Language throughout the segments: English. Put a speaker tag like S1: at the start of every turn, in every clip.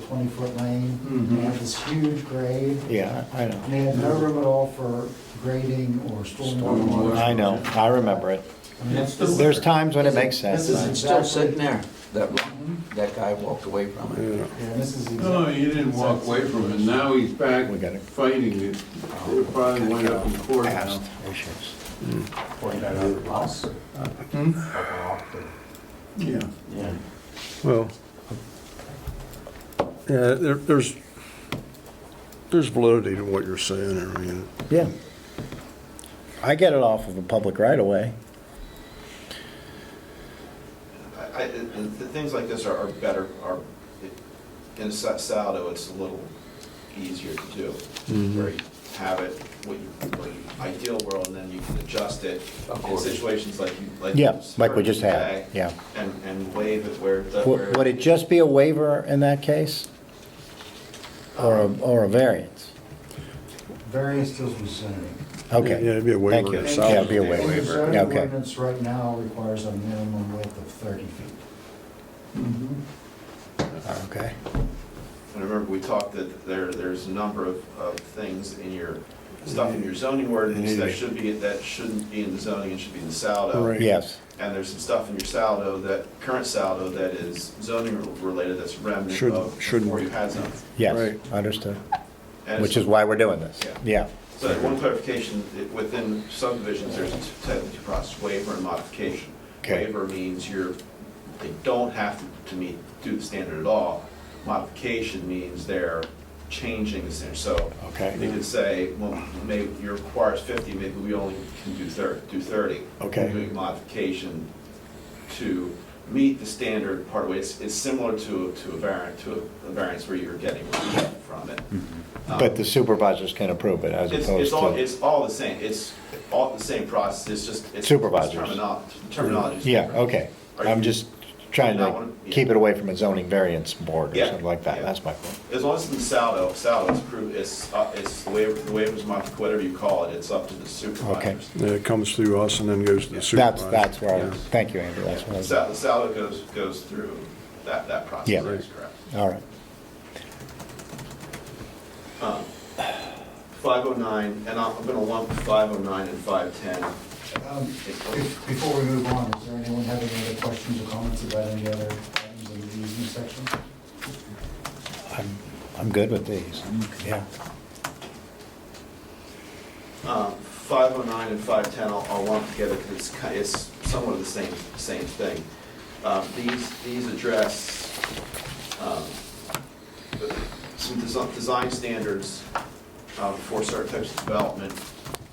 S1: twenty-foot lane.
S2: Mhm.
S1: They have this huge grade,
S3: Yeah, I
S1: and
S3: know.
S1: they had no room at all for grading or stormwater.
S2: Stormwater.
S3: I know, I remember it.
S1: I mean, it's-
S2: This is-
S3: There's times when it makes sense.
S4: This
S1: is
S4: isn't still
S1: exactly-
S4: sitting there, that, one- that guy walked away from it.
S1: Yeah, this is
S2: No,
S1: exactly.
S2: he didn't walk away from it, now he's back
S3: We got it.
S2: fighting it. It probably went up in court now.
S3: Past issues.
S4: Us?
S2: Yeah.
S4: Yeah.
S5: Well, yeah, there, there's, there's validity to what you're saying, I mean,
S3: Yeah. I get it off of a public right of way.
S6: I, I, the, the things like this are, are better, are, it- in Sa- Saldo, it's a little easier to do.
S3: Mm-hmm.
S6: Where you have it, what you, what you, ideal world, and then you can adjust it
S4: Of
S6: in
S4: course.
S6: situations like you, like. you
S3: Yeah, like we just
S6: heard
S3: had,
S6: today,
S3: yeah.
S6: And, and waive it where, the- where.
S3: Would would it just be a waiver in that case? Or, a- or a variance?
S1: Various deals with zoning.
S3: Okay.
S5: Yeah, it'd be a waiver
S3: Thank you.
S5: in
S1: And-
S5: Saldo.
S3: Yeah, it'd be a
S1: and the
S3: waiver,
S1: zoning
S3: okay.
S1: ordinance right now requires a minimum width of thirty feet.
S3: Okay.
S6: And remember, we talked that there, there's a number of, of things in your, stuff in your
S3: Mm-hmm.
S6: zoning ordinance that should be, that shouldn't be in the zoning, it should be in the Saldo.
S5: Right.
S3: Yes,
S6: And there's some stuff in your saldo that, current saldo that is zoning related, that's remnant
S5: Should-
S6: of
S5: should-
S6: before you had zoning.
S3: yes,
S5: Right.
S3: understood.
S6: And
S3: Which
S6: it's-
S3: is why we're doing this. Yeah,
S6: So one clarification, it- within subdivisions, there's two- technically two processes, waiver and modification.
S3: Okay.
S6: Waiver means you're, they don't have to- to meet, do the standard at all. Modification means they're changing the standard, so.
S3: Okay.
S6: They could say, well, maybe you require fifty, maybe we only can do thirty, do thirty.
S3: Okay.
S6: We're Doing modification to meet the standard part of it, it's, it's similar to, to a variant, to a variance where you're getting relief from it. Um,
S3: Mm-hmm. but the supervisors can approve it as
S6: it's, it's
S3: opposed
S6: all,
S3: to,
S6: it's all the same, it's all the same process, it's just, it's
S3: Supervisors.
S6: terminology, terminology. is
S3: yeah,
S6: different.
S3: okay.
S6: Are
S3: I'm
S6: you-
S3: just trying
S6: you not
S3: to
S6: wanna- yeah.
S3: keep it away from a zoning variance board or
S6: Yeah,
S3: something like that,
S6: yeah.
S3: that's my point.
S6: As long as it's in Saldo, Saldo is approved, it's, uh, it's the waiver, the waivers modified, whatever you call it, it's up to the supervisors.
S5: Yeah, It comes through us and then goes to the
S3: That's,
S5: supervisor.
S3: that's where I,
S5: Yeah.
S3: was- thank you, Andrew, that's what I
S6: Sal-
S3: was.
S6: The Saldo goes, goes through that, that process,
S3: Yeah.
S6: that's correct.
S3: All right.
S6: Um, 509, and I'm gonna lump 509 and 510.
S1: Um, if- Before we move on, is there anyone having any other questions or comments about any other items in the easement section?
S3: I'm, I'm good with these, yeah.
S6: Um, 509 and 510, I'll- I'll lump together because it's, ki- it's somewhat of the same, same thing. Um, These, these address um, some desi- design standards um, for certain types of development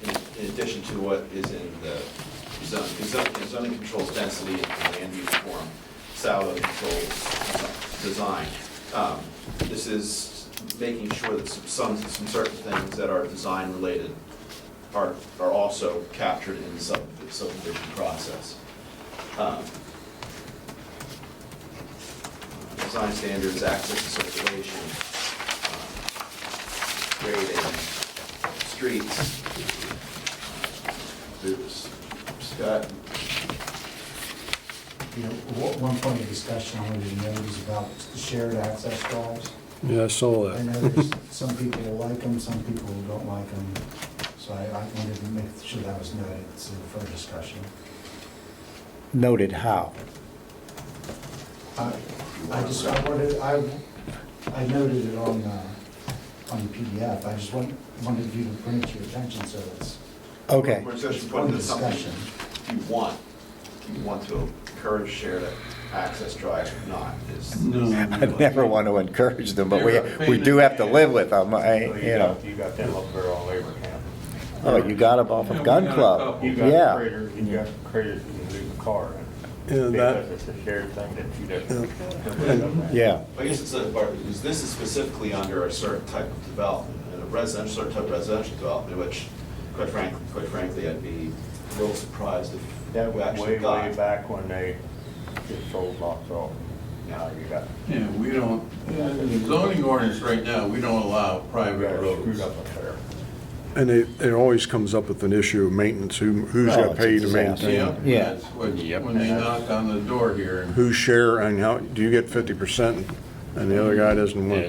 S6: in- in addition to what is in the zone. Because zoning- zoning controls density and land use form, SALO controls design. Um, This is making sure that some, some certain things that are design-related are, are also captured in the sub- subdivision process. Um, Design standards, access and circulation, um, grading, streets. Oops, Scott,
S1: You know, one- one point of discussion I wanted to note is about the shared access drives.
S5: Yeah, I saw
S1: I
S5: that.
S1: know there's some people who like them, some people who don't like them, so I I wanted to make sure that was noted, it's for discussion.
S3: Noted how?
S1: I I just, I wanted, I, I noted it on, uh, on the PDF, I just want- wanted you to bring it to your attention, so it's
S3: Okay,
S6: We're just
S1: one
S6: putting this something
S1: discussion.
S6: you want, you want to encourage shared access drive, not is.
S2: No.
S3: I never want to encourage them, but we, we do have to live with them, I, you know.
S7: You got them up there all over town.
S3: Oh, you got them off
S2: Yeah,
S3: of
S2: we
S3: Gun
S2: got a
S6: Oh,
S3: Club,
S2: couple.
S7: You got
S3: yeah.
S7: craters, you got craters in the car.
S5: Yeah, that-
S7: Because it's a shared thing that you don't.
S3: Yeah,
S6: I guess it's a part, because this is specifically under a certain type of development, and a residential, certain type of residential development, which quite frankly, quite frankly, I'd be a little surprised
S7: That
S6: if we
S7: was
S6: actually
S7: way, way
S6: got.
S7: back when they just sold lots off. Now you got,
S2: Yeah, we don't, yeah, the zoning ordinance right now, we don't allow
S7: you
S2: private
S7: got screwed
S2: roads.
S7: up up there.
S5: And it, it always comes up with an issue of maintenance, who, who's
S3: Oh,
S5: got
S3: it's a
S5: paid to
S3: disaster.
S5: maintain?
S2: Yeah,
S5: it?
S3: Yeah.
S2: that's what, when they knock on the door here.
S5: Who's share and how, do you get fifty percent and the other guy doesn't want